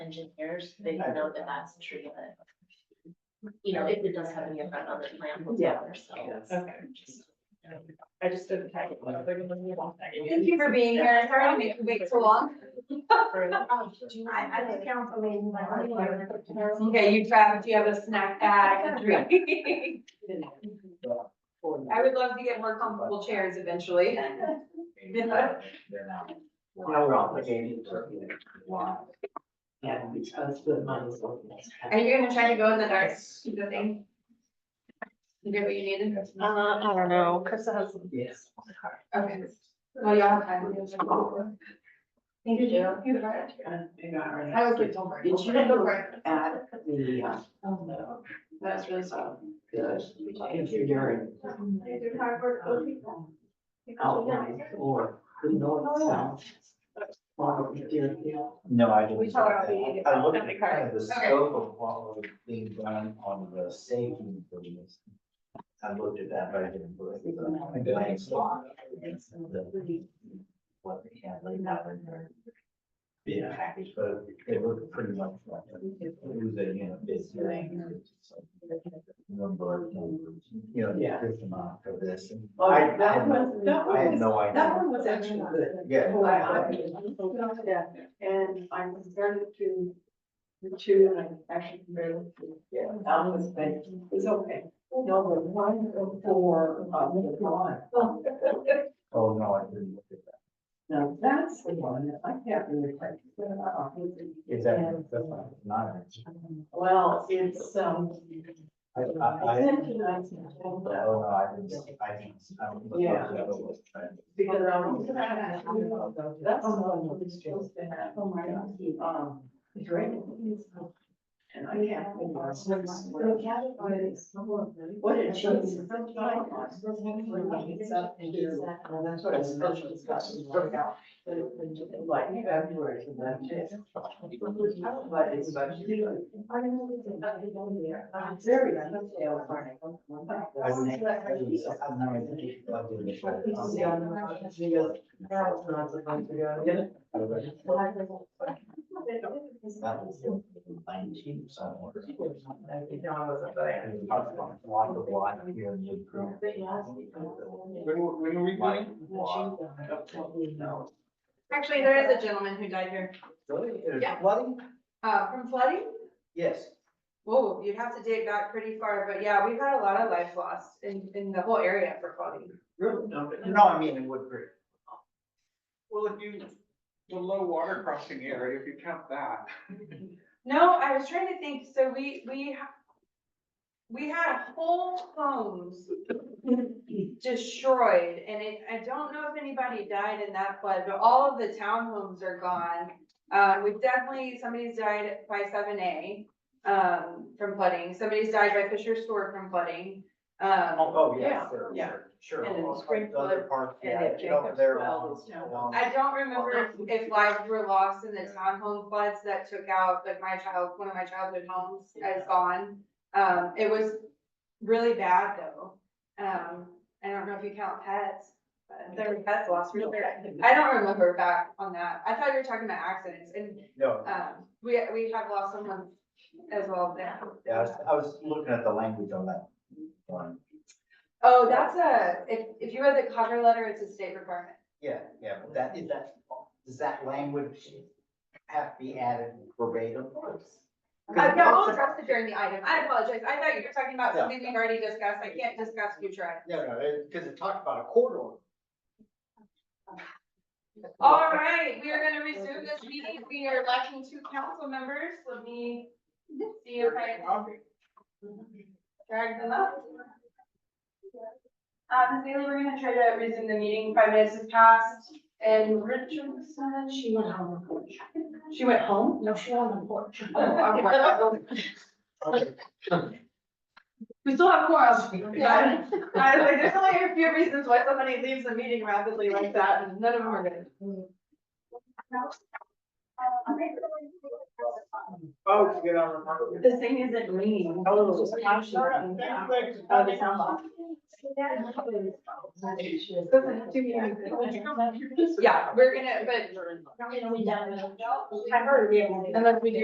engineers, they know that that's a tree that. You know, if it does have any effect on the plant whatsoever, so. Okay. I just didn't tag it. but they're gonna leave off tagging Thank you for being here. Sorry to make you wait so long. Oh, I, I think council meeting. Okay, you traveled, you have a snack bag, a drink. I would love to get more comfortable chairs eventually. They're not. Now we're obligated to. Why? Yeah, because the money's. on this. Are you gonna try to go in the dark, the thing? You get what you needed? Uh, I don't know, Krista has. Yes. Okay. Well, y'all have time. Thank you, Joe. You're right. I was like, don't worry. Did you Don't look worry. at the, uh, Oh, no. That's really soft. the engineering out on the floor, the north south? Well, dear, you know, No, I didn't. We told her we- I looked at Okay. kind of the Okay. scope of what was being done on the safety improvements. I looked at that, but I didn't. look at the- the blank slot. The- What they had laid out in their bid package, but they looked pretty much like. a- It was a, you know, bid thing. so, Number, of numbers, you know, Yeah. the system for this. and Oh, I- I that had was- no- that I had was- no idea. That one was actually good. Yeah. Oh, I- I- Yeah, and I'm compared to the two, and I actually compared it to, yeah, that was, but it's okay. No, the one for, uh, the one. Oh, no, I didn't look at that. Now, that's the one that I can't really quite. figure out. Is that, that's not, not. it. Well, it's, um, I, I, I I, sent you guys an agenda oh, no, I didn't, I didn't. I don't know. Yeah. That was trying to- because I was. That's what was supposed to happen. Oh, my God. Um, the drain. And I can't. figure out what's- What did she? Well, that's what I was supposed to discuss, is work out, but it was like February, and that's it. But it's about you. I'm very, I'm not sales, aren't I? I didn't- I didn't- I had no idea. I didn't know. I was like, what? That was in nineteen somewhere. And we talked about a lot of lot here in the group. when are we going? No. Actually, there is a gentleman who died here, Really? It was Yeah. Flooding? uh, from flooding. Yes. Whoa, you'd have to dig back pretty far, but yeah, we've had a lot of life lost in, in the whole area for flooding. Really? No, but- No, I mean in Woodbury. Well, if you, the low water crossing area, if you count that. No, I was trying to think, so we, we ha- we had whole homes destroyed, and it, I don't know if anybody died in that flood, but all of the townhomes are gone. Uh, we've definitely, somebody's died by seven A, um, from flooding, somebody's died by Fisher Store from flooding. Um, Oh, oh, Yeah, yes, sure, yeah. sure, sure. And then Well, spring the other part, and yeah, then get over Jacob's there well along- is now- along- I don't remember if- if lives were lost in the townhome floods that took out, like my child, one of my childhood homes is gone. Um, it was really bad though. Um, I don't know if you count pets, but there were pets lost. weren't there? I don't remember back on that. I thought you were talking about accidents and, No, um, we, we have lost someone as well now. yeah, I was, I was looking at the language on that one. Oh, that's a, if, if you read the cover letter, it's a state requirement. Yeah, yeah, but that, is that, does that language have to be added verbatim? Uh, no, I'll address it during the item. I apologize. I thought you were talking about Yeah. something we've already discussed. I can't discuss future items. No, no, because it talked about a corridor. All right, we are gonna resume this meeting. We are lacking two council members. Let me see if I drag them up. Uh, Ms. Bailey, we're gonna try to resume the meeting. Five minutes has passed and Richardson, she went home. Oh, She went home? No, she on the porch. Okay. We still have quorum. Yeah. I was like, there's only a few reasons why somebody leaves a meeting rapidly like that and none of them are good. Oh, to get on the market. This thing isn't green. Oh. Oh, the sound box. Doesn't have to be anything. Yeah, we're gonna, but I heard we had one. unless we do